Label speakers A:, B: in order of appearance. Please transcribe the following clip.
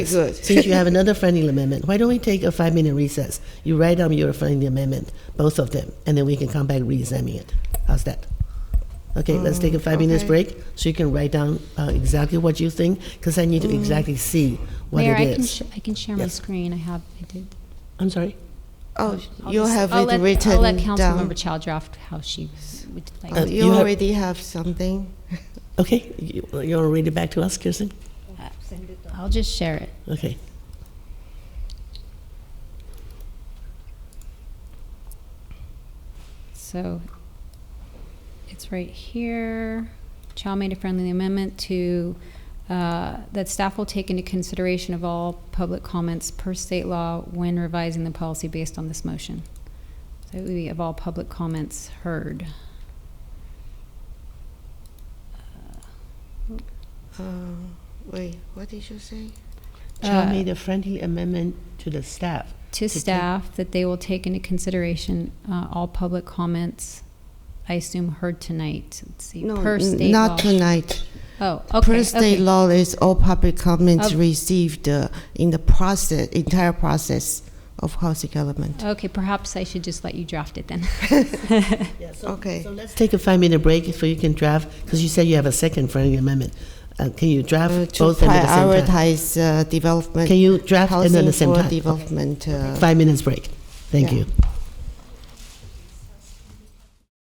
A: Good.
B: Since you have another friendly amendment, why don't we take a five minute recess? You write down your friendly amendment, both of them, and then we can come back re-examine it. How's that? Okay, let's take a five minutes
A: okay.
B: break so you can write down uh, exactly what you think, because I need to exactly see what
C: Mayor,
B: it
C: I can,
B: is.
C: sh- I can share my
B: Yes.
C: screen. I have, I did.
B: I'm sorry.
A: Oh,
C: I'll
A: you
C: just-
A: have
C: I'll
A: it
C: let-
A: written
C: I'll let
A: down.
C: Councilmember Chow draft how she would like.
A: Oh,
B: Uh,
C: to-
A: you,
B: you have-
A: already have something.
B: Okay, you, you want to read it back to us, Kirsten?
C: uh, I'll just share it.
B: Okay.
C: So it's right here. Chow made a friendly amendment to, uh, that staff will take into consideration of all public comments per state law when revising the policy based on this motion. So it would be of all public comments heard.
A: Uh, wait, what did you say?
B: Chow
C: Uh,
B: made a friendly amendment to the staff.
C: to
B: take-
C: staff that they will take into consideration uh, all public comments, I assume heard tonight. Let's see,
A: No,
C: per
A: n-
C: state
A: not
C: law.
A: tonight.
C: Oh, okay,
A: per state
C: okay. Oh.
A: law is all public comments
C: Of-
A: received uh, in the process, entire process of housing element.
C: Okay, perhaps I should just let you draft it then.
B: Yeah, so-
A: Okay.
B: So let's take a five minute break so you can draft, because you said you have a second friendly amendment. Uh, can you draft
A: Uh, to
B: both of them at the same time?
A: prioritize uh, development,
B: Can you draft them at
A: housing
B: the same
A: for
B: time?
A: development. Uh,
B: Five minutes break. Thank
A: Yeah.
B: you.